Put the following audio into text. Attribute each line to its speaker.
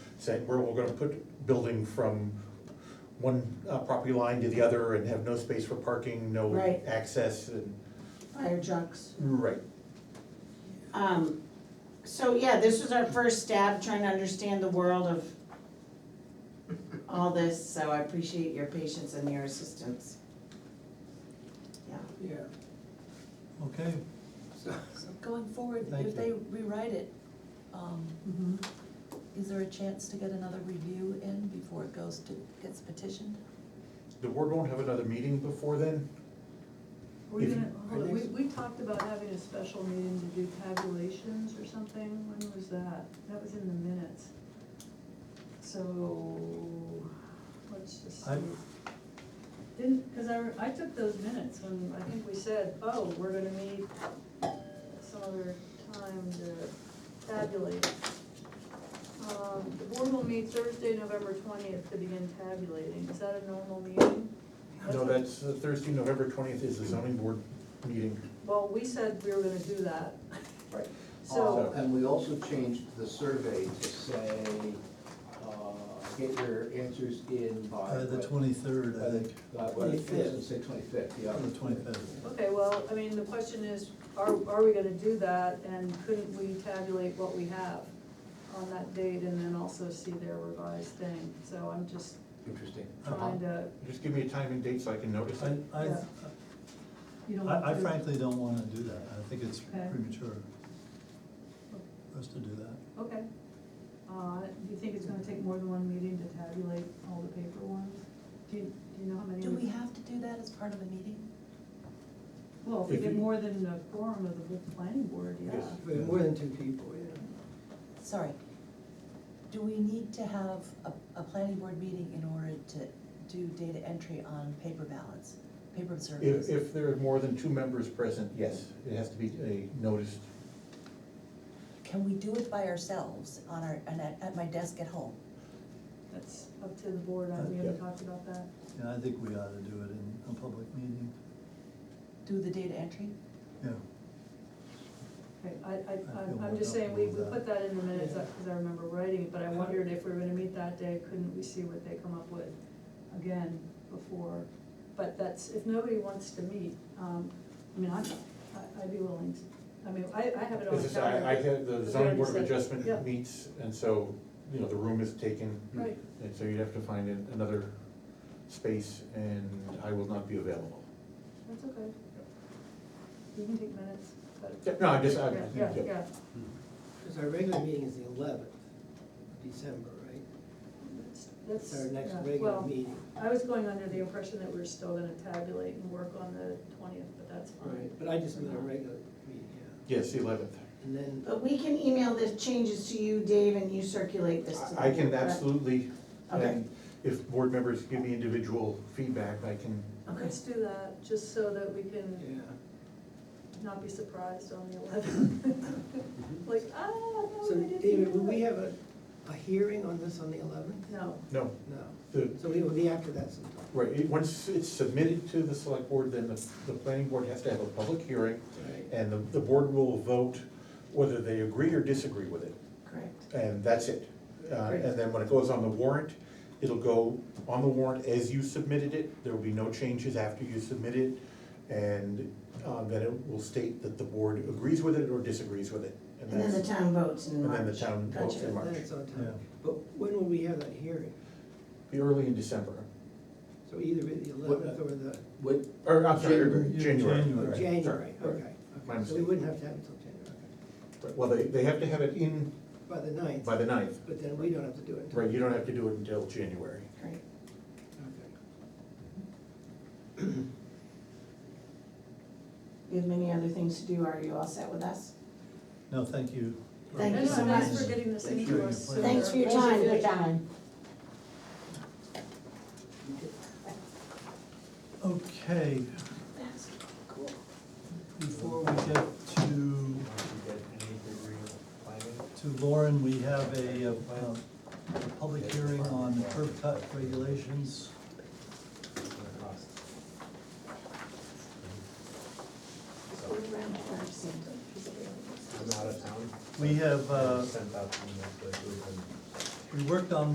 Speaker 1: saying, we're, we're gonna put building from one uh, property line to the other and have no space for parking, no
Speaker 2: Right.
Speaker 1: access and,
Speaker 2: fire trucks.
Speaker 1: right.
Speaker 2: Um, so yeah, this was our first stab trying to understand the world of all this, so I appreciate your patience and your assistance. Yeah,
Speaker 3: Yeah.
Speaker 4: Okay,
Speaker 3: So,
Speaker 5: So going forward,
Speaker 4: Thank
Speaker 5: if they rewrite it, um,
Speaker 2: Mhm.
Speaker 5: is there a chance to get another review in before it goes to, gets petitioned?
Speaker 1: The board won't have another meeting before then?
Speaker 6: We're
Speaker 1: If-
Speaker 6: gonna, hold on,
Speaker 1: I
Speaker 6: we,
Speaker 1: think
Speaker 6: we talked about having a special meeting to do tabulations or something, when was that? That was in the minutes. So, let's just see.
Speaker 4: I'm-
Speaker 6: Didn't, cause I, re- I took those minutes when, I think we said, oh, we're gonna meet some other time to tabulate. Um, the board will meet Thursday, November twentieth to begin tabulating, is that a normal meeting?
Speaker 1: No,
Speaker 6: what-
Speaker 1: that's uh, Thursday, November twentieth is the zoning board meeting.
Speaker 6: Well, we said we were gonna do that,
Speaker 3: right.
Speaker 6: so,
Speaker 3: Uh, And we also changed the survey to say, uh, get your answers in by.
Speaker 4: uh, the
Speaker 3: what-
Speaker 4: twenty-third,
Speaker 3: by
Speaker 4: I
Speaker 3: the- uh,
Speaker 4: think,
Speaker 3: By what, it doesn't say twenty-fifth, yeah.
Speaker 4: or the twenty-fifth.
Speaker 6: okay, well, I mean, the question is, are, are we gonna do that, and couldn't we tabulate what we have on that date, and then also see their revised thing, so I'm just
Speaker 3: Interesting.
Speaker 6: trying to,
Speaker 1: Just give me a time and date so I can notice it.
Speaker 4: I, I,
Speaker 6: Yeah. you don't want to.
Speaker 4: I I frankly don't wanna do that, I think it's
Speaker 6: Okay.
Speaker 4: premature for us to do that.
Speaker 6: Okay, uh, do you think it's gonna take more than one meeting to tabulate all the paper ones? Do you, do you know how many?
Speaker 5: Do we have to do that as part of a meeting?
Speaker 6: Well, if we
Speaker 1: If
Speaker 6: get
Speaker 1: you-
Speaker 6: more than a quorum of the whole planning board, yeah.
Speaker 1: Yes.
Speaker 3: More than two people, yeah.
Speaker 5: Sorry. Do we need to have a, a planning board meeting in order to do data entry on paper ballots, paper
Speaker 1: If,
Speaker 5: surveys?
Speaker 1: if there are more than two members present, yes, it has to be a noticed.
Speaker 5: Can we do it by ourselves on our, and at, at my desk at home?
Speaker 6: That's up to the board, I- we
Speaker 1: Yeah.
Speaker 6: haven't talked about that.
Speaker 4: And I think we ought to do it in a public meeting,
Speaker 5: Do the data entry?
Speaker 4: yeah.
Speaker 6: Okay, I,
Speaker 4: feel
Speaker 6: I, I'm-
Speaker 4: more
Speaker 6: I'm just saying, we, we
Speaker 4: comfortable with
Speaker 6: put that in the minutes, because I remember writing it, but I wondered if we were gonna meet that day, couldn't we see what they come up with again before? But that's, if nobody wants to meet, um, I mean, I'm, I- I'd be willing to, I mean, I, I have it on
Speaker 1: This
Speaker 6: the
Speaker 1: is, I, I
Speaker 6: calendar.
Speaker 1: had, the
Speaker 6: As
Speaker 1: zoning
Speaker 6: Randy
Speaker 1: board of
Speaker 6: said, yeah.
Speaker 1: adjustment meets, and so, you know, the room is taken.
Speaker 6: Right.
Speaker 1: And so you'd have to find an- another space, and I will not be available.
Speaker 6: That's okay. You can take minutes, but.
Speaker 1: Yeah, No, I just, I,
Speaker 6: Yeah, yeah, yeah.
Speaker 7: Because our regular meeting is the eleventh of December, right?
Speaker 6: That's- That's,
Speaker 7: It's our next
Speaker 6: yeah,
Speaker 7: regular
Speaker 6: well,
Speaker 7: meeting.
Speaker 6: I was going under the impression that we were still gonna tabulate and work on the twentieth, but that's fine.
Speaker 7: But I just meant our regular meeting, yeah.
Speaker 1: yes, the eleventh.
Speaker 7: And then,
Speaker 2: but we can email the changes to you, Dave, and you circulate this to them.
Speaker 1: I I can
Speaker 2: correct?
Speaker 1: absolutely,
Speaker 2: Okay.
Speaker 1: and if board members give me individual feedback, I can,
Speaker 2: Okay.
Speaker 6: Let's do that, just so that we can
Speaker 7: yeah,
Speaker 6: not be surprised on the eleventh. Like, ah, no,
Speaker 7: so
Speaker 6: they didn't.
Speaker 7: David,
Speaker 6: do
Speaker 7: will we
Speaker 6: that."
Speaker 7: have a, a hearing on this on the eleventh?
Speaker 6: No,
Speaker 1: no,
Speaker 7: No,
Speaker 1: the,
Speaker 7: so it will be after that sometime.
Speaker 1: right, it- once it's submitted to the select board, then the, the planning board has to have a public hearing,
Speaker 7: Right.
Speaker 1: and the, the board will vote whether they agree or disagree with it.
Speaker 2: Correct.
Speaker 1: and that's it. Uh, And then when it goes on the warrant, it'll go on the warrant as you submitted it, there will be no changes after you submit it. And uh, then it will state that the board agrees with it or disagrees with it.
Speaker 2: And then the
Speaker 1: that's-
Speaker 2: town votes in
Speaker 1: And
Speaker 2: March.
Speaker 1: then the town votes
Speaker 2: Gotcha.
Speaker 1: in March.
Speaker 7: Then it's on
Speaker 4: Yeah.
Speaker 7: time. But when will we have that hearing?
Speaker 1: Be early in December,
Speaker 7: So either the eleventh or the,
Speaker 1: uh,
Speaker 3: What,
Speaker 1: or, I'm sorry,
Speaker 4: January.
Speaker 1: January.
Speaker 4: January.
Speaker 7: oh,
Speaker 4: Right.
Speaker 7: January,
Speaker 1: Sorry,
Speaker 7: okay.
Speaker 1: right. My
Speaker 7: okay. So we
Speaker 1: mistake.
Speaker 7: wouldn't have to have it till January, okay.
Speaker 1: Well, they, they have to have it in
Speaker 7: by the ninth,
Speaker 1: by the ninth,
Speaker 7: but then we don't have to do it until.
Speaker 1: right, you don't have to do it until January.
Speaker 2: Great.
Speaker 7: Okay.
Speaker 2: You have many other things to do, are you all set with us?
Speaker 4: No, thank you.
Speaker 2: Thank
Speaker 6: no,
Speaker 2: you
Speaker 6: no,
Speaker 2: so
Speaker 6: thanks
Speaker 2: much.
Speaker 6: for getting this
Speaker 4: Thank you.
Speaker 6: into us.
Speaker 4: Thanks
Speaker 2: Thanks for your time.
Speaker 4: Okay, before we get to, to Lauren, we have a, uh, um, a public hearing on curb cut regulations. uh, We have, uh, we worked on